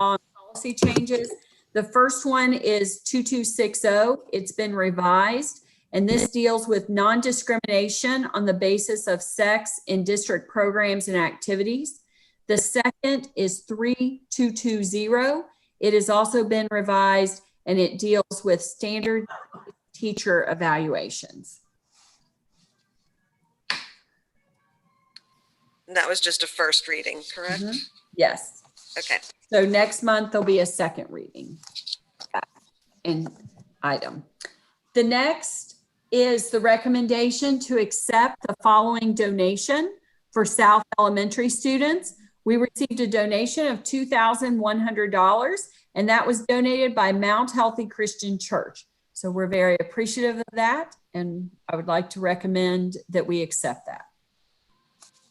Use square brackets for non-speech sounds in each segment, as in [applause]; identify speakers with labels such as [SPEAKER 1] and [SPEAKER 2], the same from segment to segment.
[SPEAKER 1] on policy changes. The first one is 2260. oh. It's been revised. And this deals with non-discrimination on the basis of sex in district programs and activities. The second is 3220. It has also been revised and it deals with standard teacher evaluations.
[SPEAKER 2] And that was just a first reading, correct?
[SPEAKER 1] Mhm. Yes.
[SPEAKER 2] Okay,
[SPEAKER 1] So next month, there'll be a second reading and item. The next is the recommendation to accept the following donation for South Elementary students. We received a donation of $2,100, and that was donated by Mount Healthy Christian Church. So we're very appreciative of that, and I would like to recommend that we accept that.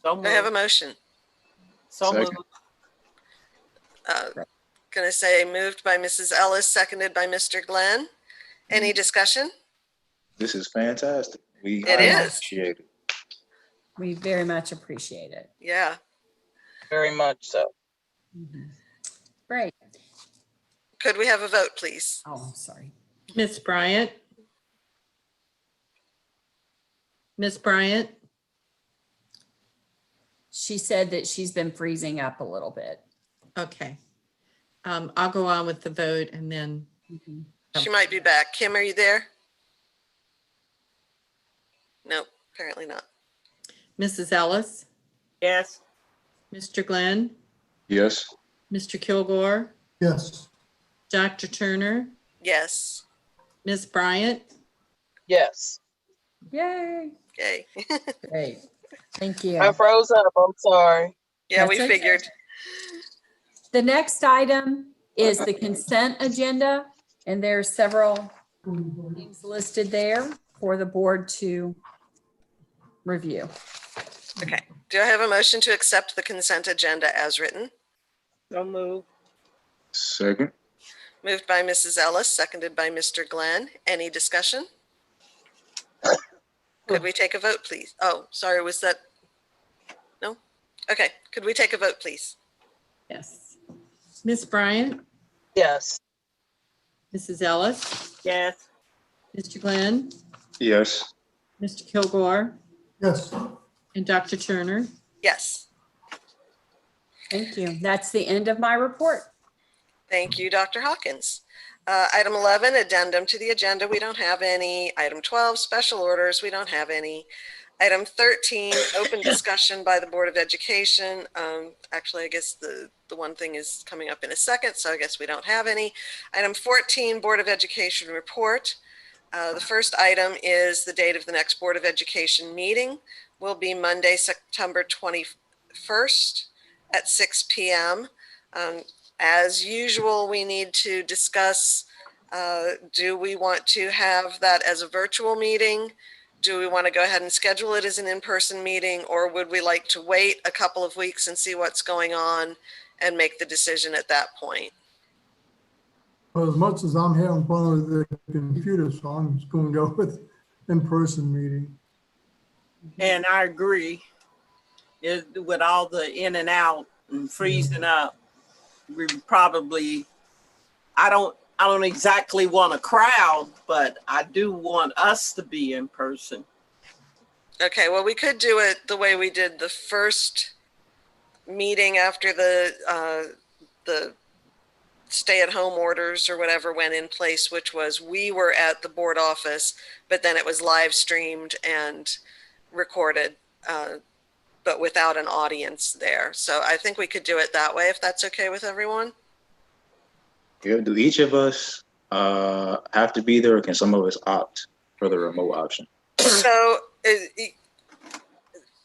[SPEAKER 3] So
[SPEAKER 2] Do I have a
[SPEAKER 3] moved.
[SPEAKER 2] motion.
[SPEAKER 3] So
[SPEAKER 4] Second.
[SPEAKER 3] moved.
[SPEAKER 2] Uh, Gonna say moved by Mrs. Ellis, seconded by Mr. Glenn. Any discussion?
[SPEAKER 4] This is fantastic. We
[SPEAKER 2] It
[SPEAKER 4] highly
[SPEAKER 2] is.
[SPEAKER 4] appreciate it.
[SPEAKER 1] We very much appreciate it.
[SPEAKER 2] Yeah,
[SPEAKER 3] Very much so.
[SPEAKER 1] Great.
[SPEAKER 2] could we have a vote, please?
[SPEAKER 1] Oh, sorry.
[SPEAKER 5] Miss Bryant? Miss Bryant?
[SPEAKER 1] She said that she's been freezing up a little bit.
[SPEAKER 5] Okay. Um, I'll go on with the vote and then,
[SPEAKER 1] Mm-hmm.
[SPEAKER 2] She might be back. Kim, are you there? Nope, apparently not.
[SPEAKER 5] Mrs. Ellis,
[SPEAKER 3] Yes,
[SPEAKER 5] Mr. Glenn,
[SPEAKER 4] Yes,
[SPEAKER 5] Mr. Kilgore,
[SPEAKER 6] yes,
[SPEAKER 5] Dr. Turner,
[SPEAKER 2] Yes,
[SPEAKER 5] Miss Bryant,
[SPEAKER 3] yes.
[SPEAKER 1] Yay.
[SPEAKER 2] yay.
[SPEAKER 1] Great. Thank you.
[SPEAKER 3] I froze up. I'm sorry.
[SPEAKER 2] Yeah, we
[SPEAKER 1] That's okay.
[SPEAKER 2] figured.
[SPEAKER 1] The next item is the consent agenda, and there are several things listed there for the board to review.
[SPEAKER 2] Okay, do I have a motion to accept the consent agenda as written?
[SPEAKER 3] So moved.
[SPEAKER 4] second.
[SPEAKER 2] Moved by Mrs. Ellis, seconded by Mr. Glenn. Any discussion? Could we take a vote, please? Oh, sorry, was that? No? Okay, could we take a vote, please?
[SPEAKER 1] Yes.
[SPEAKER 5] Miss Bryant,
[SPEAKER 3] Yes,
[SPEAKER 5] Mrs. Ellis,
[SPEAKER 3] yes,
[SPEAKER 5] Mr. Glenn,
[SPEAKER 4] Yes,
[SPEAKER 5] Mr. Kilgore,
[SPEAKER 6] yes,
[SPEAKER 5] and Dr. Turner.
[SPEAKER 2] Yes,
[SPEAKER 1] Thank you. That's the end of my report.
[SPEAKER 2] thank you, Dr. Hawkins. Uh, Item 11, addendum to the agenda, we don't have any. Item 12, special orders, we don't have any. Item 13, open discussion by the Board of Education. Um, Actually, I guess the, the one thing is coming up in a second, so I guess we don't have any. Item 14, Board of Education report. Uh, The first item is the date of the next Board of Education meeting will be Monday, September 21st at 6 PM. Um, As usual, we need to discuss, uh, do we want to have that as a virtual meeting? Do we want to go ahead and schedule it as an in-person meeting, or would we like to wait a couple of weeks and see what's going on and make the decision at that point?
[SPEAKER 6] well, as much as I'm having fun with the computer, so I'm just gonna go [laughs] with in-person meeting.
[SPEAKER 3] and I agree. It- With all the in and out and freezing up, we probably, I don't, I don't exactly want a crowd, but I do want us to be in person.
[SPEAKER 2] Okay, well, we could do it the way we did the first meeting after the, uh, the stay-at-home orders or whatever went in place, which was we were at the board office, but then it was live streamed and recorded, uh, but without an audience there. So I think we could do it that way, if that's okay with everyone.
[SPEAKER 4] Yeah, do each of us uh, have to be there or can some of us opt for the remote option? [laughs]
[SPEAKER 2] So, uh, e-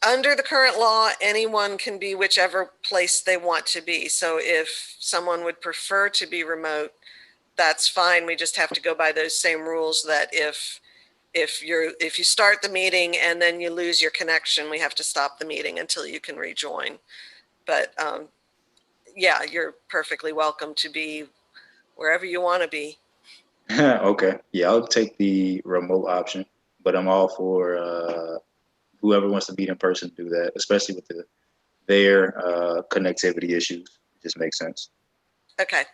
[SPEAKER 2] under the current law, anyone can be whichever place they want to be. So if someone would prefer to be remote, that's fine. We just have to go by those same rules that if, if you're, if you start the meeting and then you lose your connection, we have to stop the meeting until you can rejoin. But, um, yeah, you're perfectly welcome to be wherever you want to be.
[SPEAKER 4] okay, yeah, I'll take the remote option, but I'm all for uh, whoever wants to meet in person do that, especially with the their uh, connectivity issues. It just makes sense.
[SPEAKER 2] Okay.